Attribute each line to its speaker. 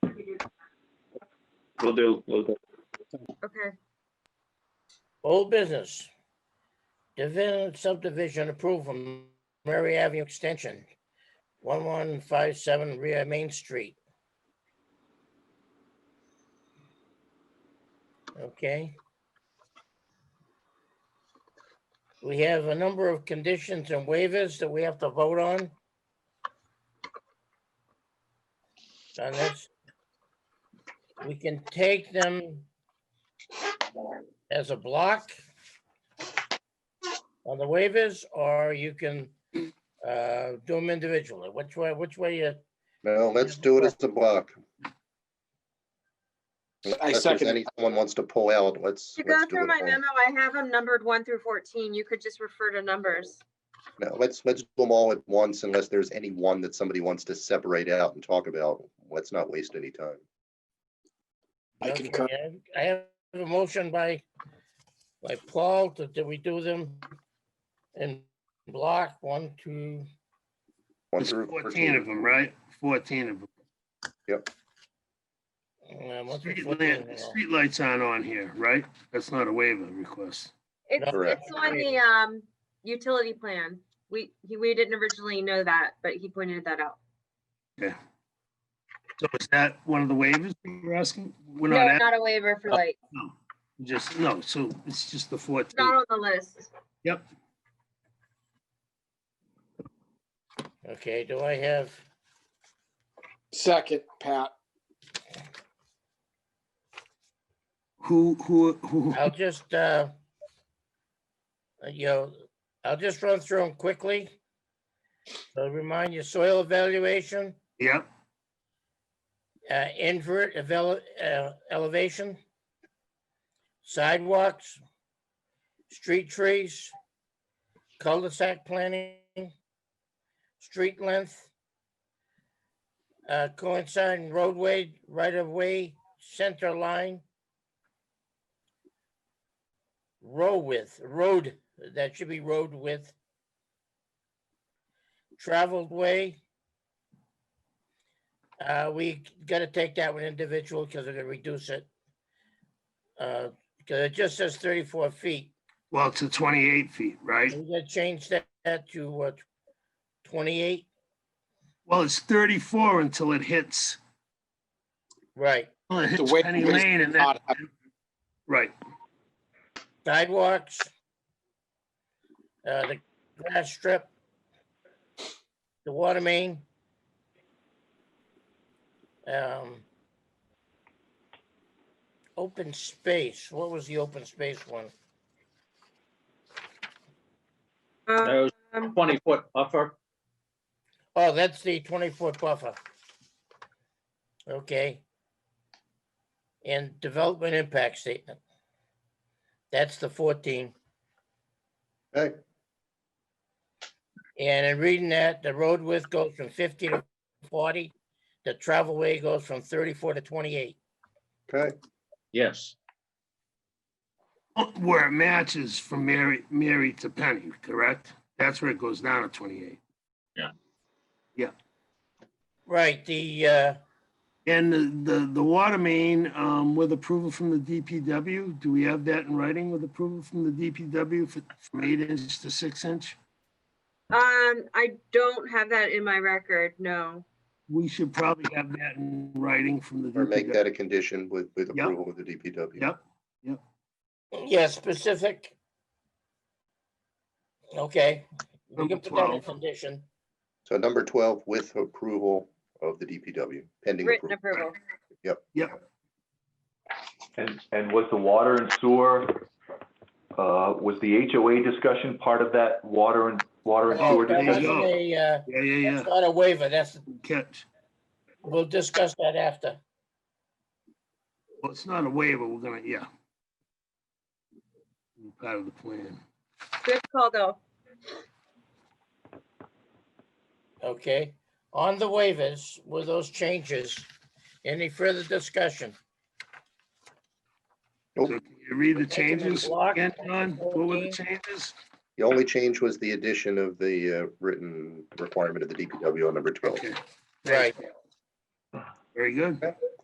Speaker 1: We'll do, we'll do.
Speaker 2: Okay,
Speaker 3: Old business. Division subdivision approval from Murray Avenue Extension, one one five seven rear Main Street. Okay. We have a number of conditions and waivers that we have to vote on. On this. We can take them as a block on the waivers, or you can uh, do them individually. Which way, which way you,
Speaker 4: No, let's do it as a block. Unless there's
Speaker 5: second it.
Speaker 4: any- Someone wants to pull out, let's.
Speaker 2: to go
Speaker 4: let's do
Speaker 2: through
Speaker 4: it
Speaker 2: my
Speaker 4: all.
Speaker 2: memo, I have them numbered one through fourteen. You could just refer to numbers.
Speaker 4: No, let's, let's do them all at once unless there's any one that somebody wants to separate out and talk about. Let's not waste any time.
Speaker 5: I
Speaker 3: Okay,
Speaker 5: concur.
Speaker 3: I I have a motion by, by Paul, to- that we do them in block one, two,
Speaker 4: One
Speaker 6: There's
Speaker 4: through
Speaker 6: Fourteen of them, right? Fourteen of them.
Speaker 3: uh, one through
Speaker 6: Street
Speaker 3: 14,
Speaker 6: lamp- Streetlights aren't on here, right? That's not a waiver request.
Speaker 2: It's,
Speaker 4: Correct.
Speaker 2: it's on the, um, utility plan. We, he- we didn't originally know that, but he pointed that out.
Speaker 6: Yeah. So is that one of the waivers we're asking? We're
Speaker 2: No,
Speaker 6: not, asking.
Speaker 2: not a waiver for like,
Speaker 6: just, no, so it's just the
Speaker 2: it's
Speaker 6: fourteen.
Speaker 2: not on the list.
Speaker 6: Yep.
Speaker 3: Okay, do I have,
Speaker 5: Second, Pat.
Speaker 6: Who, who, who,
Speaker 3: I'll just, uh, uh, you know, I'll just run through them quickly. So remind you, soil evaluation.
Speaker 6: yep,
Speaker 3: uh, invert evel- uh, elevation, sidewalks, street trees, cul-de-sac planning, street length, uh, coinciding roadway, right-of-way, center line, row width, road, that should be road width, traveled way, uh, we gotta take that one individual because we're gonna reduce it. Uh, because it just says thirty-four feet.
Speaker 6: well, to twenty-eight feet, right?
Speaker 3: We gotta change that- that to what? Twenty-eight?
Speaker 6: Well, it's thirty-four until it hits,
Speaker 3: Right.
Speaker 6: well, it
Speaker 5: The
Speaker 6: hits
Speaker 5: way-
Speaker 6: Penny Lane and then,
Speaker 5: Not-
Speaker 6: right,
Speaker 3: Sidewalks. Uh, the grass strip. The water main. Um. Open space. What was the open space one?
Speaker 2: Um,
Speaker 1: That was
Speaker 2: Um,
Speaker 1: Twenty foot buffer.
Speaker 3: Oh, that's the twenty-foot buffer. Okay. And development impact statement. That's the fourteen.
Speaker 4: Okay,
Speaker 3: And in reading that, the road width goes from fifty to forty. The travel way goes from thirty-four to twenty-eight.
Speaker 4: okay,
Speaker 1: Yes,
Speaker 6: where it matches from Mary, Mary to Penny, correct? That's where it goes down to twenty-eight.
Speaker 3: Right, the, uh,
Speaker 6: And the, the, the water main, um, with approval from the DPW, do we have that in writing with approval from the DPW for- from eight inch to six inch?
Speaker 2: um, I don't have that in my record, no.
Speaker 6: We should probably have that in writing from the.
Speaker 4: or make
Speaker 6: DPW.
Speaker 4: that a condition with, with
Speaker 6: Yep.
Speaker 4: approval of the DPW.
Speaker 6: Yep,
Speaker 3: yeah, specific. Okay. We
Speaker 6: Number
Speaker 3: can put that in
Speaker 6: 12.
Speaker 3: condition.
Speaker 4: So number twelve with approval of the DPW, pending
Speaker 2: Written
Speaker 4: approval.
Speaker 2: approval.
Speaker 7: And, and was the water and sewer, uh, was the HOA discussion part of that water and, water and
Speaker 6: Oh,
Speaker 7: sewer?
Speaker 3: That
Speaker 6: there you
Speaker 7: discussion?
Speaker 3: wasn't
Speaker 6: go.
Speaker 3: a, uh,
Speaker 6: yeah, yeah, yeah,
Speaker 3: that's not a waiver. That's,
Speaker 6: catch.
Speaker 3: we'll discuss that after.
Speaker 6: Well, it's not a waiver, we're gonna, yeah. Part of the plan.
Speaker 2: Good call though.
Speaker 3: Okay, on the waivers with those changes, any further discussion?
Speaker 6: So can you read the changes
Speaker 3: Block
Speaker 6: again, John? What were the
Speaker 3: 14.
Speaker 6: changes?
Speaker 4: The only change was the addition of the uh, written requirement of the DPW on number twelve.
Speaker 6: Okay.
Speaker 3: Right.
Speaker 6: Very good.